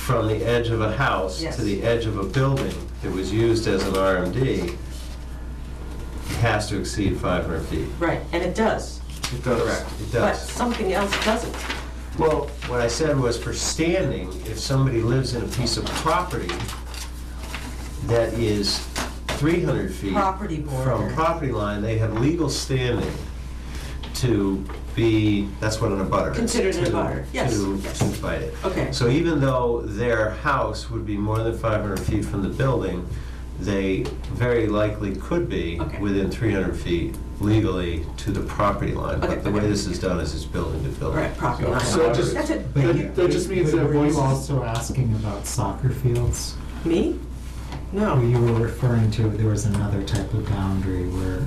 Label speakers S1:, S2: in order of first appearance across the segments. S1: from the edge of a house
S2: Yes.
S1: to the edge of a building that was used as an RMD has to exceed 500 feet.
S2: Right, and it does,
S3: It does.
S1: It
S2: but
S1: does.
S2: something else doesn't.
S1: Well, what I said was for standing, if somebody lives in a piece of property that is 300 feet
S2: Property
S1: from
S2: border.
S1: property line, they have legal standing to be, that's what an abutter is.
S2: Considered an
S1: to-
S2: abutter, yes,
S1: To
S2: yes.
S1: to fight it.
S2: Okay.
S1: So even though their house would be more than 500 feet from the building, they very likely could be
S2: Okay.
S1: within 300 feet legally to the property line.
S2: Okay,
S1: But the way
S2: okay.
S1: this is done is it's building to building.
S2: Right, property line.
S3: So just-
S2: That's it.
S4: But
S3: That- that just means
S4: but
S3: that
S4: Were
S3: voices-
S4: you also asking about soccer fields?
S2: Me?
S3: Oh.
S4: Or
S2: No.
S4: you were referring to, there was another type of boundary where,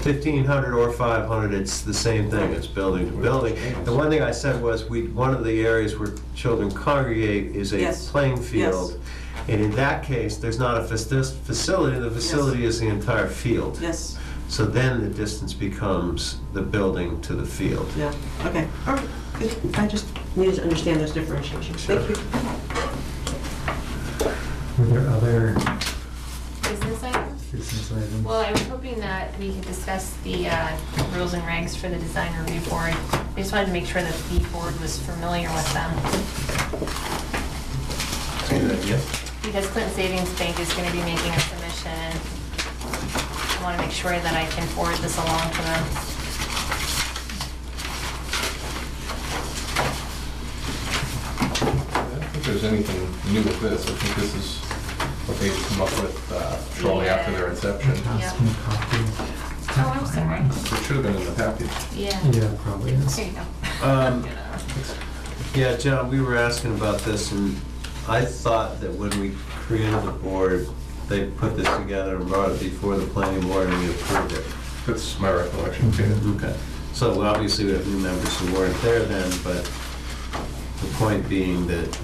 S1: Fifteen hundred or five hundred, it's the same thing, it's building to building. The one thing I said was, we, one of the areas where children congregate is a
S2: Yes.
S1: playing field. And in that case, there's not a fac- this facility, the facility is the entire field.
S2: Yes,
S1: So then the distance becomes the building to the field.
S2: yeah, okay, all right, good. I just needed to understand those differentiations. Thank you.
S4: were there other
S5: business item?
S4: business items?
S5: Well, I was hoping that we could discuss the uh, rules and regs for the design review board. I just wanted to make sure that the board was familiar with them, because Clinton Savings Bank is gonna be making a submission. I wanna make sure that I can forward this along to them.
S6: I don't think there's anything new with this. I think this is what they've come up with uh, shortly after their inception.
S4: Pass
S5: Yeah.
S4: me a copy.
S5: Oh, I'm sorry.
S6: It should have been in the package.
S5: Yeah.
S4: Yeah, probably is.
S5: There you go.
S1: Um, Yeah, John, we were asking about this, and I thought that when we created the board, they put this together and brought it before the planning board and we approved it.
S6: That's my recollection, too.
S1: Okay, so obviously we have new members who weren't there then, but the point being that,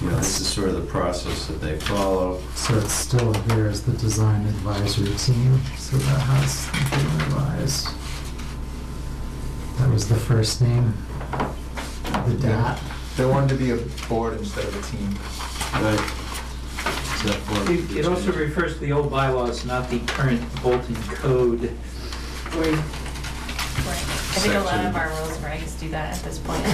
S1: you know, this is sort of the process that they follow.
S4: So it's still here as the design advisory team, so that has been revised. That was the first name, the DAT.
S3: They wanted to be a board instead of a team.
S1: Right. Except for-
S7: It it also refers to the old bylaws, not the current Bolton code.
S2: Wait,
S5: Right. I think a lot
S1: Section.
S5: of our rules and regs do that at this point.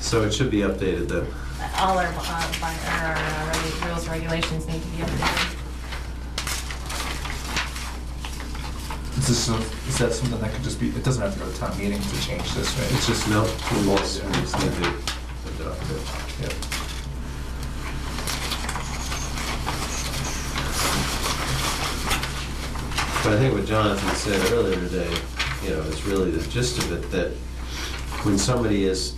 S1: So it should be updated then.
S5: All our, uh, by- our uh, regu- rules, and regulations need to be updated.
S3: Is this, so- is that something that could just be, it doesn't have to go to town meeting to change this, right? uh,
S1: It's just no, we just we just need to adopt it.
S3: Yeah.
S1: But I think what Jonathan said earlier today, you know, is really the gist of it, that when somebody is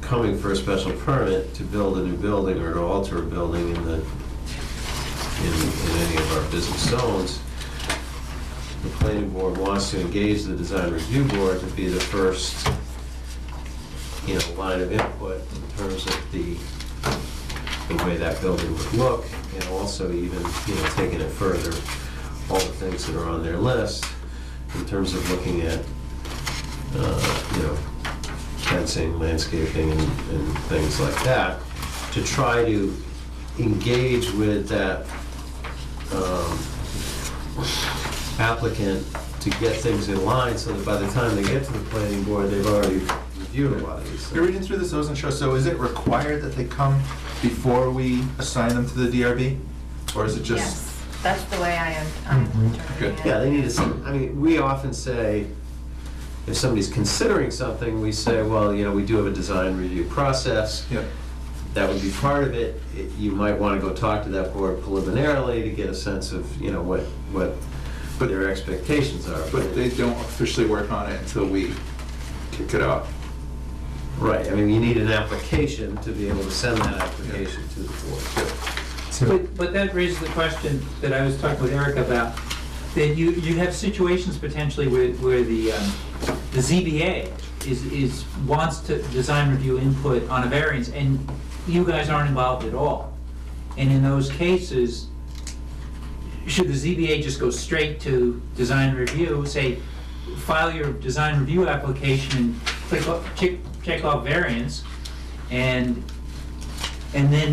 S1: coming for a special permit to build a new building or to alter a building in the, in, in any of our business zones, the planning board wants to engage the design review board to be the first, you know, line of input in terms of the, the way that building would look, and also even, you know, taking it further, all the things that are on their list in terms of looking at, uh, you know, fencing, landscaping, and, and things like that, to try to engage with that, um, applicant to get things in line, so that by the time they get to the planning board, they've already reviewed a lot of these
S3: You're
S1: things.
S3: reading through this, I wasn't sure, so is it required that they come before we assign them to the DRB? Or is it just?
S5: Yes, that's the way I am, um, I'm
S4: Mhm.
S5: interpreting it.
S1: Yeah, they need to, see- I mean, we often say, if somebody's considering something, we say, well, you know, we do have a design review process.
S3: Yeah.
S1: That would be part of it. It- You might want to go talk to that board preliminarily to get a sense of, you know, what, what their expectations are.
S3: But they don't officially work on it until we kick it off.
S1: Right, I mean, you need an application to be able to send that application to the board.
S4: So,
S7: But, but that raises the question that I was talking with Eric about, that you, you have situations potentially where, where the, um, the ZBA is, is, wants to design review input on a variance, and you guys aren't involved at all. And in those cases, should the ZBA just go straight to design review, say, file your design review application and click, off- check, check off variance, and, and then